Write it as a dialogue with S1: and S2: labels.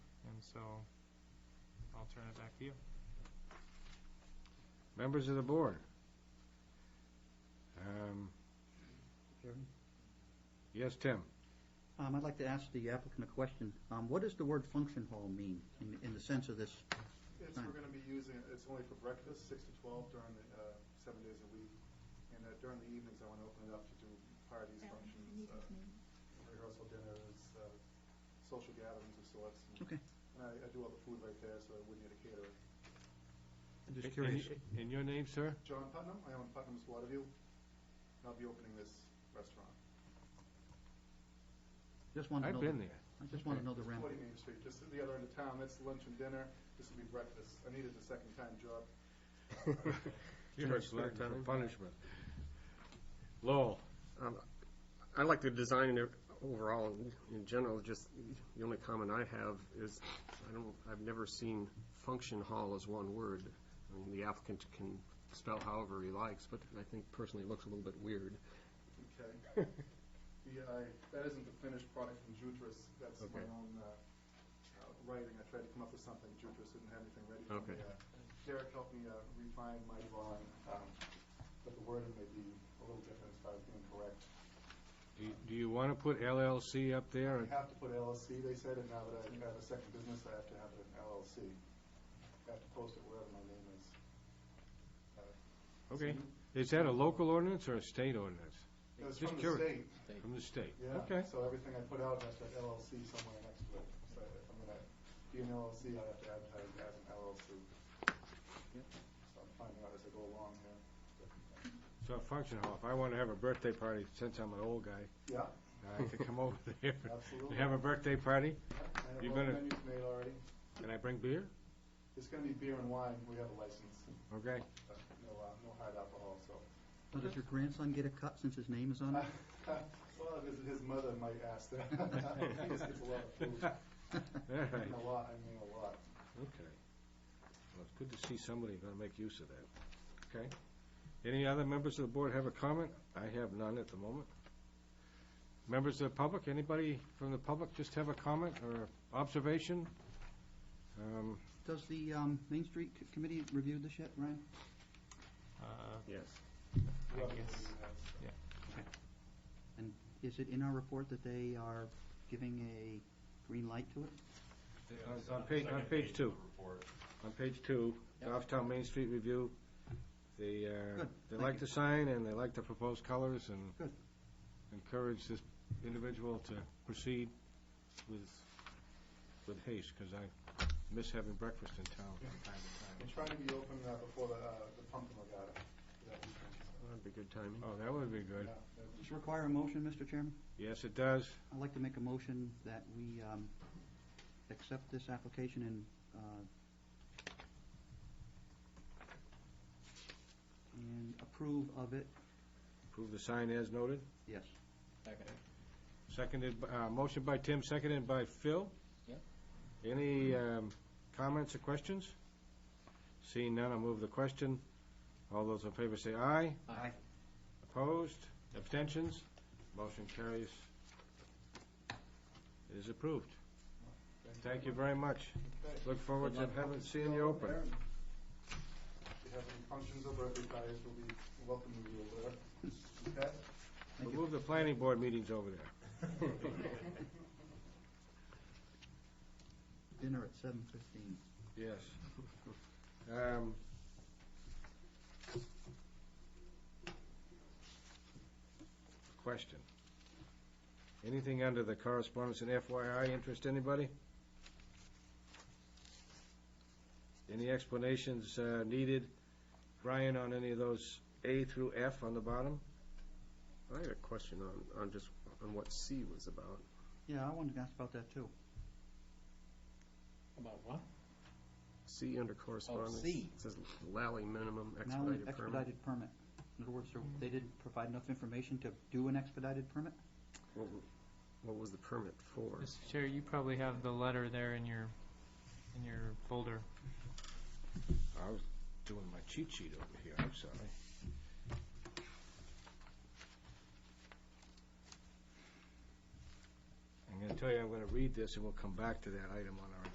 S1: so I'll turn it back to you.
S2: Members of the board? Um,
S3: Chairman?
S2: Yes, Tim?
S3: Um, I'd like to ask the applicant a question. Um, what does the word function hall mean in, in the sense of this?
S4: It's,
S3: Fine.
S4: we're gonna be using, it- it's only for breakfast, six to twelve during the, uh, seven days a week. And uh, during the evenings, I wanna open it up to do parties, functions, uh, rehearsal dinners, uh, social gatherings of sorts. And-
S3: Okay.
S4: And I, I do all the food right there, so I wouldn't need a caterer.
S3: I'm
S2: In- in- In your name, sir?
S4: John Putnam, I own Putnam's Waterview, and I'll be opening this restaurant.
S3: Just want to know.
S2: I've
S3: the-
S2: been there.
S3: I just want to know the ramp.
S4: Forty Main Street, just the other end of town, that's lunch and dinner, this will be breakfast. I needed a second time job.
S2: You're a slug ton of punishment. Lowell?
S5: Um, I like the design o- overall, in- in general, just, the only comment I have is, I don't, I've never seen function hall as one word. I mean, the applicant can spell however he likes, but I think personally it looks a little bit weird.
S4: Okay. Yeah, I, that isn't the finished product from Jutris, that's my
S5: Okay.
S4: own uh, uh, writing, I tried to come up with something, Jutris didn't have anything ready for
S5: Okay.
S4: me. Uh, Derek helped me uh, refine my drawing, um, but the wording may be a little different as far as being correct.
S2: Do you- Do you want to put LLC up there?
S4: You have to put LLC, they said, and now that I have a second business, I have to have an LLC. I have to post it wherever my name is.
S2: Okay. Is that a local ordinance or a state ordinance?
S4: It was
S2: Just
S4: from the
S2: curious.
S4: state,
S2: From the state?
S4: Yeah,
S2: Okay.
S4: so everything I put out has to have LLC somewhere next to it. So if I'm gonna be an LLC, I have to advertise it as an LLC. So I'm finding out as I go along here.
S2: So function hall, if I want to have a birthday party, since I'm an old guy,
S4: Yeah.
S2: I could come over there and
S4: Absolutely.
S2: have a birthday party,
S4: I have
S2: You're
S4: all the
S2: gonna-
S4: menus made already.
S2: and I bring beer?
S4: It's gonna be beer and wine, we have a license,
S2: Okay.
S4: but no, uh, no hard alcohol, so.
S3: Now, Does your grandson get a cut since his name
S2: Um.
S3: is on it?
S4: Well, his, his mother might ask that. He just gets a lot of food.
S2: All right.
S4: A lot, I mean, a lot.
S2: Okay. Well, it's good to see somebody going to make use of that. Okay. Any other members of the board have a comment? I have none at the moment. Members of the public, anybody from the public just have a comment or observation? Um,
S3: Does the, um, Main Street C- Committee review this yet, Ryan?
S1: Uh,
S5: Yes.
S1: I
S4: Whoever
S1: guess.
S4: he has.
S3: Is it in our report that they are giving a green light to it?
S2: On on page, on page two. On page two, Goffstown Main Street Review, they, uh,
S3: Good,
S2: they
S3: thank
S2: like
S3: you.
S2: the sign and they like the proposed colors and
S3: Good.
S2: encourage this individual to proceed with, with haste, because I miss having breakfast in town from time
S4: I'm
S2: to
S4: trying to be open uh, before the, uh, the pumpkin regatta. That weekend, so,
S5: That'd be good timing.
S2: time. Oh, that would be good.
S4: yeah, that'd be-
S3: Does it require a motion, Mr. Chairman?
S2: Yes, it does.
S3: I'd like to make a motion that we, um, accept this application and, uh, and approve of it,
S2: Approve the sign as noted.
S3: yes.
S2: Seconded, b- uh, motion by Tim, seconded by Phil. Any um, comments or questions? Seeing none, I'll move the question. All those in favor say aye.
S3: Aye.
S2: Opposed? Abstentions? Motion carries. It is approved. Thank you very much.
S4: Okay.
S2: Look forward to having, seeing you open.
S4: If you have any functions or birthday parties, we'll be welcoming you over there. Okay?
S2: We'll move the planning board meetings over there.
S3: Dinner at seven fifteen.
S2: Yes. Um, Question. Anything under the correspondence and FYI interest anybody? Any explanations uh, needed, Brian, on any of those A through F on the bottom?
S5: I had a question on, on just, on what C was about.
S3: Yeah, I wanted to ask about that too.
S6: About what?
S5: C under correspondence.
S6: C.
S5: It says Lally minimum
S3: Now, an
S5: expedited permit.
S3: expedited permit. In other words, there- they didn't provide enough information to do an expedited permit?
S5: What w- What was the permit for?
S1: Mr. Chair, you probably have the letter there in your, in your folder.
S2: I was doing my cheat sheet over here, I'm sorry. I'm gonna tell you, I'm gonna read this, and we'll come back to that item on our